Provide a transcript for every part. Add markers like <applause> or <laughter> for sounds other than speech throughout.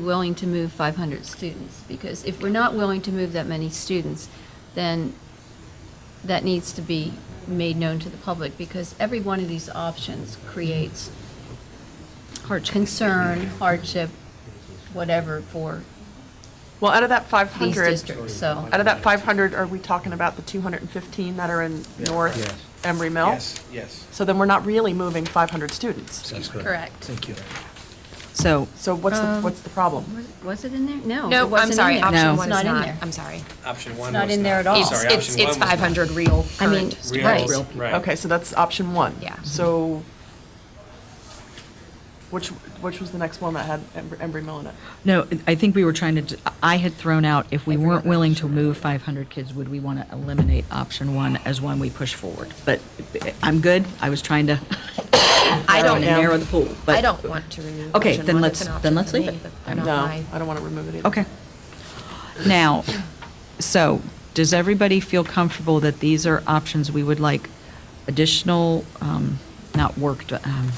willing to move 500 students, because if we're not willing to move that many students, then that needs to be made known to the public, because every one of these options creates concern, hardship, whatever for Well, out of that these 500, districts, so. out of that 500, are we talking about the 215 that are in Yes. North Embry Mill? Yes, yes. So then we're not really moving 500 students. That's correct. Correct. Thank you. So, So what's the, what's the problem? Was- Was it in there? No. it No, I'm wasn't in sorry, there. option No. one It's is not in not, there. I'm sorry. Option one was not in there at all. Oh, It's, sorry, it's, option it's one was not. 500 real I mean, current Real, Right. students. Right. Okay, so that's option one. Yeah. So which, which was the next one that had Embry Embry Mill in it? no, I think we were trying to, d- I had thrown out, if we Every weren't other willing to move 500 kids, would we want to eliminate option one as one we push forward? But eh, I'm good, I was trying to I don't know. narrow the pool, but. I don't want to remove Okay, option then one. let's- It's an then option let's for leave me, it. but I'm not No, my- I don't want to remove it either. Okay. Now, so, does everybody feel comfortable that these are options we would like additional, um, not work, um,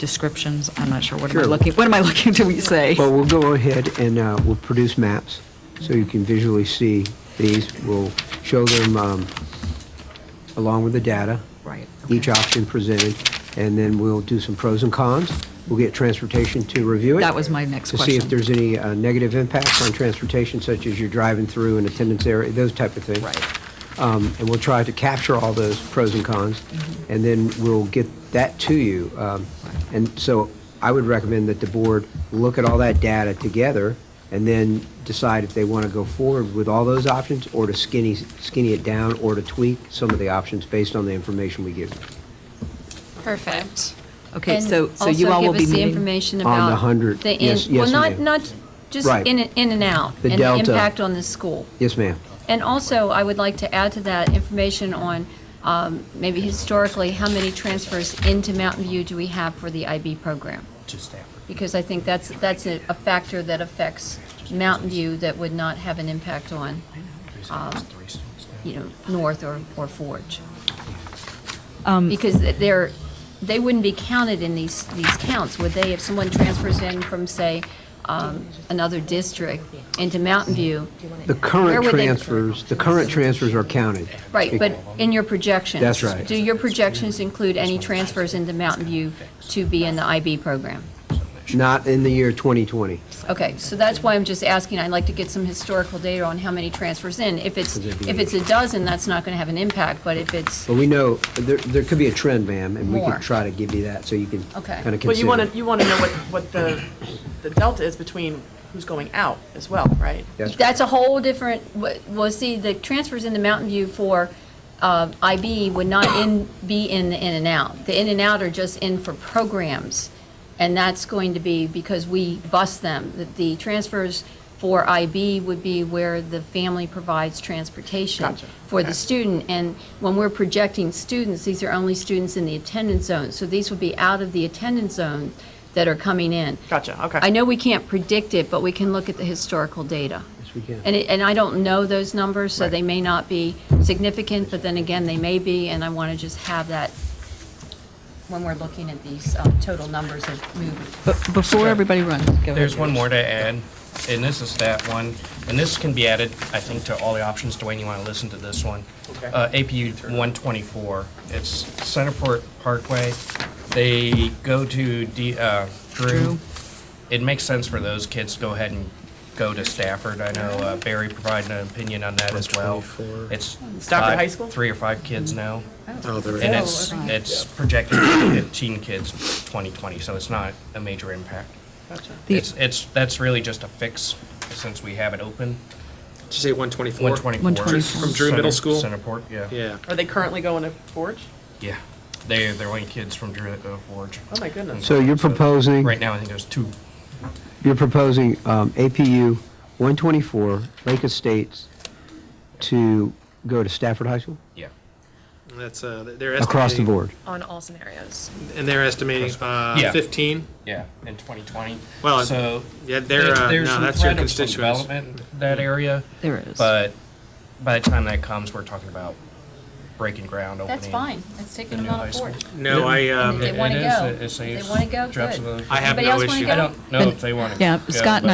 descriptions? I'm not sure, what am I Sure. looking, what am I <laughs> looking to say? Well, we'll go ahead and uh, we'll produce maps, so you can visually see these. We'll show them um, along with the data. Right, Each okay. option presented, and then we'll do some pros and cons. We'll get transportation to review it. That was my next To see if question. there's any uh, negative impacts on transportation, such as your driving through and attendance area, those type of things. Right. Um, And we'll try to capture all those pros and cons, Mm-hmm. and then we'll get that to you. Um, And so I would recommend that the board look at all that data together and then decide if they want to go forward with all those options or to skinny, skinny it down or to tweak some of the options based on the information we give. Perfect. Okay, And so, so you also all will be give us the meeting? information On the about. 100, the in- yes, yes, Well, not, ma'am. not, just Right. in, and- in and out. The And the delta. impact on the school. Yes, ma'am? And also, I would like to add to that information on um, maybe historically, how many transfers into Mountain View do we have for the IB program? Because I think that's, that's a a factor that affects Mountain View that would not have an impact on, um, you know, North or, or Forge. Um, Because they're, they wouldn't be counted in these, these counts, would they? If someone transfers in from, say, um, another district into Mountain View, The Where current would they- transfers, the current transfers are counted. Right, but in your projections? That's right. Do your projections include any transfers into Mountain View to be in the IB program? Not in the year 2020. Okay, so that's why I'm just asking, I'd like to get some historical data on how many transfers in. If it's, Could there be- if it's a dozen, that's not going to have an impact, but if it's, But we know, there, there could be a trend, ma'am, and we More. could try to give you that, so you can Okay. kind of Well, you want consider. to, you want to know what, what the, the delta is between who's going out as well, right? That's right. that's a whole different, wa- well, see, the transfers into Mountain View for uh, IB would not in, be in the in and out. The in and out are just in for programs, and that's going to be because we bus them. The- The transfers for IB would be where the family provides transportation Gotcha. for the student. And when we're projecting students, these are only students in the attendance zone. So these would be out of the attendance zone that are coming in. Gotcha, okay. I know we can't predict it, but we can look at the historical data. Yes, we can. And, it- and I don't know those numbers, so they may not be significant, but then again, they may be, and I want to just have that when we're looking at these um, total numbers of movement. But Before everybody runs, go ahead. There's one more to add, and this is that one, and this can be added, I think, to all the options. Dwayne, you want to listen to this one? Okay. Uh, APU 124, it's Centerport Parkway. They go to D- uh, Drew. Drew. It makes sense for those kids to go ahead and go to Stafford. I know uh, Barry provided an opinion on that as well. 124. It's Stafford five- High School? Three or five kids now. Oh, there And it is. it's, it's projected to be 15 kids 2020, so it's not a major impact. Gotcha. The- It's, it's, that's really just a fix since we have it open. Did you say 124? 124. 124. From Drew Middle Center- School? Centerport, yeah. Yeah. Are they currently going to Forge? Yeah. They, they're only kids from Drew that go to Forge. Oh, my goodness. So you're proposing, Right now, I think there's two. you're proposing um, APU 124, Lake Estates, to go to Stafford High School? Yeah. That's, uh, they're estimating. Across the board? On all scenarios. And they're estimating, uh, Yeah. 15? Yeah, in 2020. Well, So. yeah, they're, there- uh, there's no, some that's your threat of some constituents. Development in that area, There is. but by the time that comes, we're talking about breaking ground, opening. That's fine, let's take the them new on high a school. board. No, I, um, They It- wanna it is, go. it- it's a- They wanna go, drops good. of the- I have Anybody no else wanna issue. go? I don't know if they want to. Yeah, Scott and